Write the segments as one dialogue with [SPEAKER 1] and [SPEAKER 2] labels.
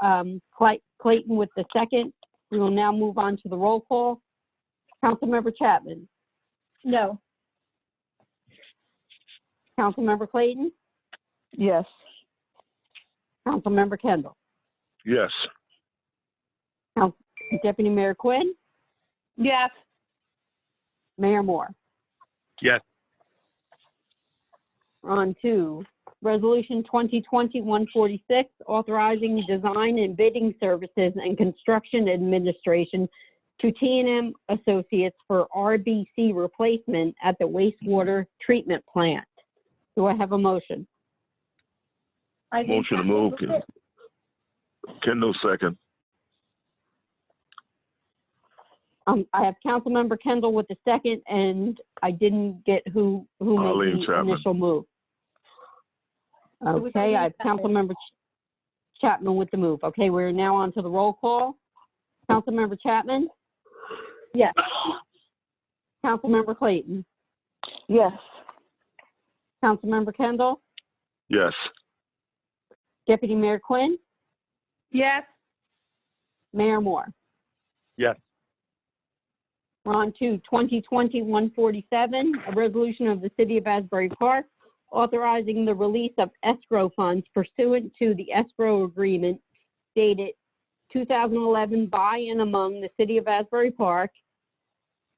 [SPEAKER 1] um, Clay- Clayton with the second. We will now move on to the roll call. Councilmember Chapman?
[SPEAKER 2] No.
[SPEAKER 1] Councilmember Clayton?
[SPEAKER 2] Yes.
[SPEAKER 1] Councilmember Kendall?
[SPEAKER 3] Yes.
[SPEAKER 1] Deputy Mayor Quinn?
[SPEAKER 2] Yes.
[SPEAKER 1] Mayor Moore?
[SPEAKER 3] Yes.
[SPEAKER 1] On to Resolution 2020-146, authorizing design and bidding services and construction administration to t and m Associates for RBC replacement at the wastewater treatment plant. Do I have a motion?
[SPEAKER 2] I think
[SPEAKER 3] Motion to
[SPEAKER 2] that
[SPEAKER 3] move.
[SPEAKER 2] was it.
[SPEAKER 3] Kendall second.
[SPEAKER 1] Um, I have Councilmember Kendall with the second, and I didn't get who, who
[SPEAKER 3] Arlene
[SPEAKER 1] made the
[SPEAKER 3] Chapman.
[SPEAKER 1] initial move.
[SPEAKER 2] was
[SPEAKER 1] Okay, I have
[SPEAKER 2] Arlene Chapman.
[SPEAKER 1] Councilmember Ch- Chapman with the move. Okay, we're now on to the roll call. Councilmember Chapman?
[SPEAKER 2] Yes.
[SPEAKER 1] Councilmember Clayton?
[SPEAKER 2] Yes.
[SPEAKER 1] Councilmember Kendall?
[SPEAKER 3] Yes.
[SPEAKER 1] Deputy Mayor Quinn?
[SPEAKER 2] Yes.
[SPEAKER 1] Mayor Moore?
[SPEAKER 3] Yes.
[SPEAKER 1] We're on to 2020-147, a resolution of the City of Asbury Park authorizing the release of escrow funds pursuant to the escrow agreement dated 2011 by and among the City of Asbury Park,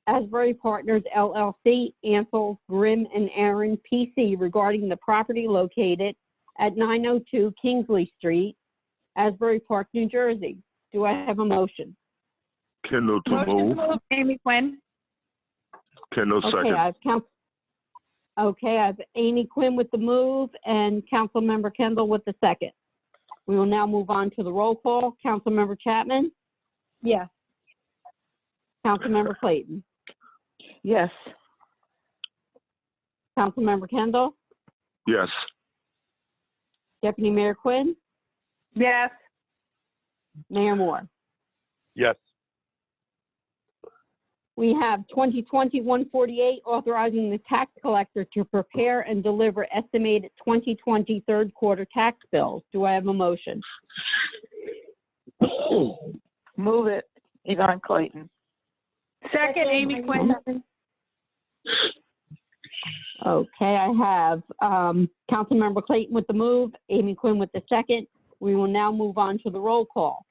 [SPEAKER 1] Asbury Partners LLC, Ansel, Grimm, and Aaron PC regarding the property located at 902 Kingsley Street, Asbury Park, New Jersey. Do I have a motion?
[SPEAKER 3] Kendall to
[SPEAKER 2] Motion
[SPEAKER 3] move.
[SPEAKER 2] to move, Amy Quinn.
[SPEAKER 3] Kendall
[SPEAKER 1] Okay,
[SPEAKER 3] second.
[SPEAKER 1] I've count, okay, I've Amy Quinn with the move and Councilmember Kendall with the second. We will now move on to the roll call. Councilmember Chapman,
[SPEAKER 2] Yes.
[SPEAKER 1] Councilmember Clayton,
[SPEAKER 2] Yes.
[SPEAKER 1] Councilmember Kendall,
[SPEAKER 3] Yes.
[SPEAKER 1] Deputy Mayor Quinn,
[SPEAKER 2] Yes.
[SPEAKER 1] Mayor Moore.
[SPEAKER 3] Yes.
[SPEAKER 1] We have 2020-148, authorizing the tax collector to prepare and deliver estimated 2020 third quarter tax bills. Do I have a motion?
[SPEAKER 4] Move it, Yvonne Clayton.
[SPEAKER 2] Second, Amy Quinn.
[SPEAKER 1] Okay, I have um, Councilmember Clayton with the move, Amy Quinn with the second. We will now move on to the roll call.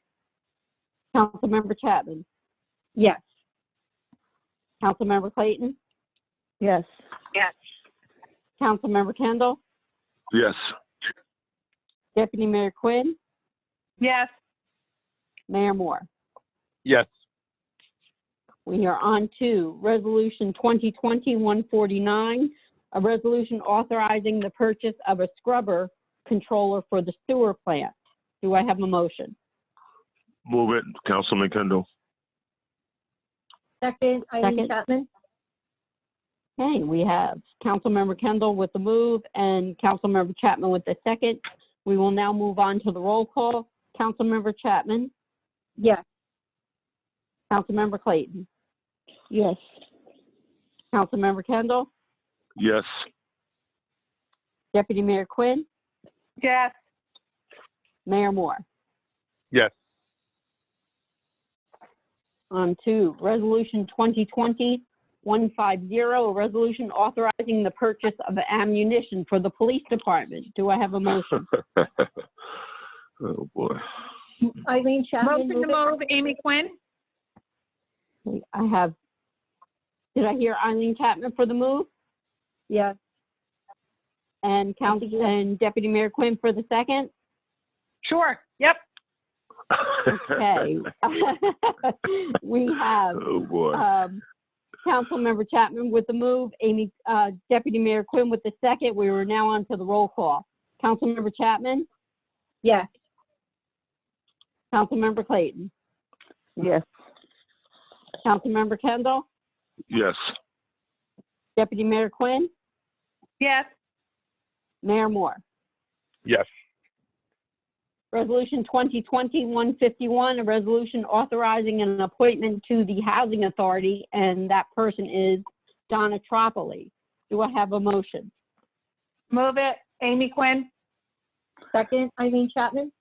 [SPEAKER 1] Councilmember Chapman,
[SPEAKER 2] Yes.
[SPEAKER 1] Councilmember Clayton,
[SPEAKER 4] Yes.
[SPEAKER 1] Councilmember Kendall,
[SPEAKER 3] Yes.
[SPEAKER 1] Deputy Mayor Quinn,
[SPEAKER 2] Yes.
[SPEAKER 1] Mayor Moore.
[SPEAKER 3] Yes.
[SPEAKER 1] We are on to Resolution 2020-149, a resolution authorizing the purchase of a scrubber controller for the sewer plant. Do I have a motion?
[SPEAKER 3] Move it, Councilman Kendall.
[SPEAKER 2] Second,
[SPEAKER 1] Second.
[SPEAKER 2] Chapman.
[SPEAKER 1] Okay, we have Councilmember Kendall with the move and Councilmember Chapman with the second. We will now move on to the roll call. Councilmember Chapman,
[SPEAKER 2] Yes.
[SPEAKER 1] Councilmember Clayton,
[SPEAKER 4] Yes.
[SPEAKER 1] Councilmember Kendall,
[SPEAKER 3] Yes.
[SPEAKER 1] Deputy Mayor Quinn,
[SPEAKER 2] Yes.
[SPEAKER 1] Mayor Moore.
[SPEAKER 3] Yes.
[SPEAKER 1] On to Resolution 2020-150, a resolution authorizing the purchase of ammunition for the police department. Do I have a motion?
[SPEAKER 3] Oh, boy.
[SPEAKER 5] Eileen Chapman,
[SPEAKER 2] Motion
[SPEAKER 5] move
[SPEAKER 2] to
[SPEAKER 5] it.
[SPEAKER 2] move, Amy Quinn.
[SPEAKER 1] I have, did I hear Eileen Chapman for the move?
[SPEAKER 5] Yes,
[SPEAKER 1] And Council, and Deputy Mayor Quinn for the second?
[SPEAKER 2] Sure. Yep.
[SPEAKER 1] Okay. We have,
[SPEAKER 3] Oh, boy.
[SPEAKER 1] um, Councilmember Chapman with the move, Amy, uh, Deputy Mayor Quinn with the second. We were now on to the roll call. Councilmember Chapman,
[SPEAKER 5] yes,
[SPEAKER 1] Councilmember Clayton,
[SPEAKER 4] Yes.
[SPEAKER 1] Councilmember Kendall,
[SPEAKER 3] Yes.
[SPEAKER 1] Deputy Mayor Quinn,
[SPEAKER 2] Yes.
[SPEAKER 1] Mayor Moore.
[SPEAKER 3] Yes.
[SPEAKER 1] Resolution 2020-151, a resolution authorizing an appointment to the Housing Authority, and that person is Donna Tropoli. Do I have a motion?
[SPEAKER 2] Move it, Amy Quinn.
[SPEAKER 5] second, Eileen Chapman,